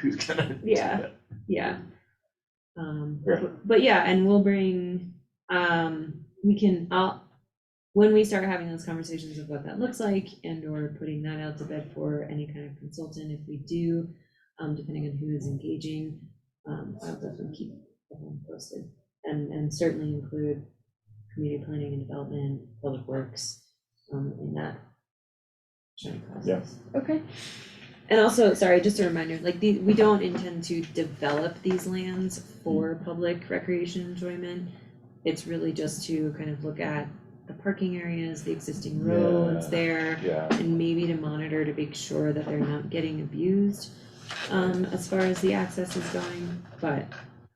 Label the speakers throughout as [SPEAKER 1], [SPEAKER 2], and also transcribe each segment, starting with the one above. [SPEAKER 1] who's gonna do
[SPEAKER 2] Yeah.
[SPEAKER 1] that.
[SPEAKER 2] Yeah. Um,
[SPEAKER 1] Yeah.
[SPEAKER 2] but- but yeah, and we'll bring, um, we can, I'll, when we start having those conversations of what that looks like and or putting that out to bed for any kind of consultant, if we do, um, depending on who is engaging, um, I'll definitely keep everyone posted. And, and certainly include community planning and development, public works, um, in that joint process. Okay. And also, sorry, just a reminder, like, the, we don't intend to develop these lands for public recreation enjoyment. It's really just to kind of look at the parking areas, the existing roads
[SPEAKER 1] Yeah.
[SPEAKER 2] there,
[SPEAKER 1] Yeah,
[SPEAKER 2] and maybe to monitor to make sure that they're not getting abused, um, as far as the access is going, but,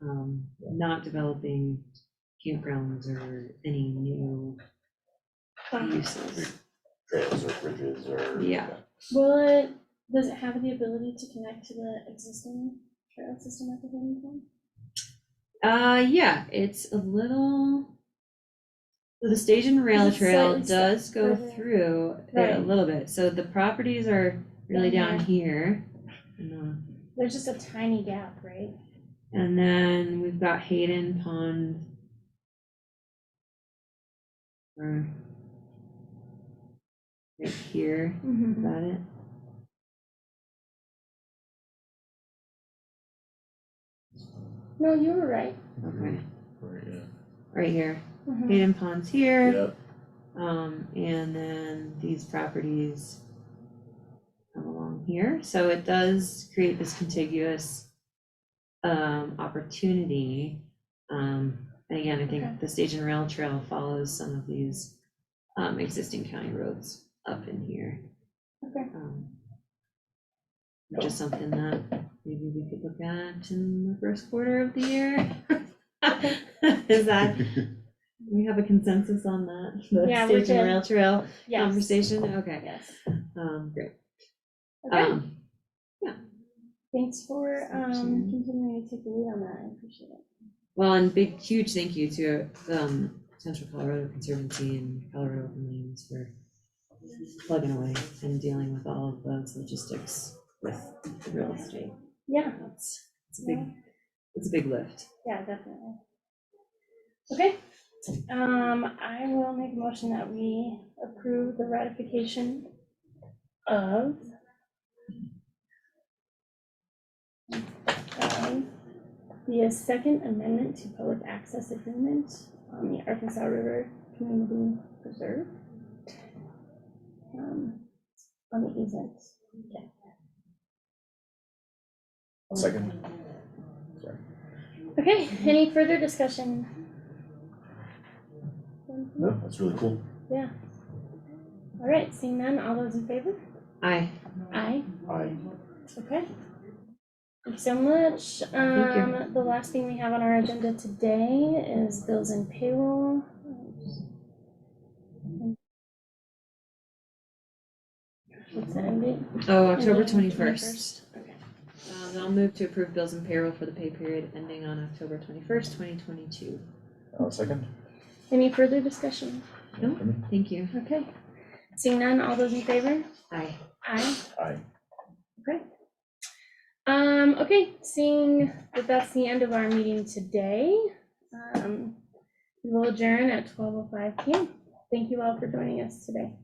[SPEAKER 2] um, not developing campgrounds or any new uses.
[SPEAKER 1] trails or bridges or.
[SPEAKER 2] Yeah.
[SPEAKER 3] Will it, does it have the ability to connect to the existing trail system at the holding pond?
[SPEAKER 2] Uh, yeah, it's a little. so The stage and rail
[SPEAKER 3] Is it
[SPEAKER 2] trail
[SPEAKER 3] slightly sta-
[SPEAKER 2] does go
[SPEAKER 3] further?
[SPEAKER 2] through it a
[SPEAKER 3] Right.
[SPEAKER 2] little bit, so the properties are really
[SPEAKER 3] Down
[SPEAKER 2] down here. And the-
[SPEAKER 3] There's just a tiny gap, right?
[SPEAKER 2] And then we've got Hayden Pond. Or. Right here, is that it?
[SPEAKER 3] No, you were right.
[SPEAKER 2] Okay,
[SPEAKER 1] Right, yeah.
[SPEAKER 2] right here,
[SPEAKER 3] Mhm.
[SPEAKER 2] Hayden Pond's here.
[SPEAKER 1] Yep,
[SPEAKER 2] Um, and then these properties come along here, so it does create this contiguous um, opportunity. Um, and again, I
[SPEAKER 3] Okay.
[SPEAKER 2] think the stage and rail trail follows some of these um, existing county roads up in here.
[SPEAKER 3] Okay.
[SPEAKER 2] Um, Which is something that maybe we could look at in the first quarter of the year. Is that, we have a consensus on that? The
[SPEAKER 3] Yeah, we
[SPEAKER 2] Stage and rail trail
[SPEAKER 3] Yes,
[SPEAKER 2] conversation, okay,
[SPEAKER 3] yes.
[SPEAKER 2] um, great.
[SPEAKER 3] Okay,
[SPEAKER 2] Um,
[SPEAKER 3] thanks for, um,
[SPEAKER 2] Section.
[SPEAKER 3] continuing to take the lead on that, I appreciate it.
[SPEAKER 2] Well, and big, huge thank you to, um, Central Colorado Conservancy and Colorado Open Lands for plugging away and dealing with all of those logistics with the real estate.
[SPEAKER 3] Yeah,
[SPEAKER 2] It's, it's a big, it's a big lift.
[SPEAKER 3] yeah, definitely. Okay, um, I will make a motion that we approve the ratification of um, the Second Amendment to Public Access Agreement on the Arkansas River Community Preserve. um, On the easement.
[SPEAKER 1] second,
[SPEAKER 3] Okay, any further discussion?
[SPEAKER 1] no, that's really cool.
[SPEAKER 3] All right, seeing none, all those in favor?
[SPEAKER 2] I,
[SPEAKER 3] Aye.
[SPEAKER 1] I,
[SPEAKER 3] Okay. Thank you so much.
[SPEAKER 2] Thank you.
[SPEAKER 3] Um, the last thing we have on our agenda today is bills and payroll. What's the end date?
[SPEAKER 2] oh, October
[SPEAKER 3] Mhm,
[SPEAKER 2] twenty-first.
[SPEAKER 3] 21st. Okay.
[SPEAKER 2] Um, I'll move to approve bills and payroll for the pay period ending on October twenty-first, twenty twenty-two.
[SPEAKER 1] uh, second.
[SPEAKER 3] Any further discussion?
[SPEAKER 2] No.
[SPEAKER 1] For me?
[SPEAKER 2] Thank you.
[SPEAKER 3] Okay. Seeing none, all those in favor?
[SPEAKER 2] Aye.
[SPEAKER 3] Aye.
[SPEAKER 1] I,
[SPEAKER 3] Um, okay, seeing that that's the end of our meeting today, um, we will adjourn at twelve oh five PM. Thank you all for joining us today.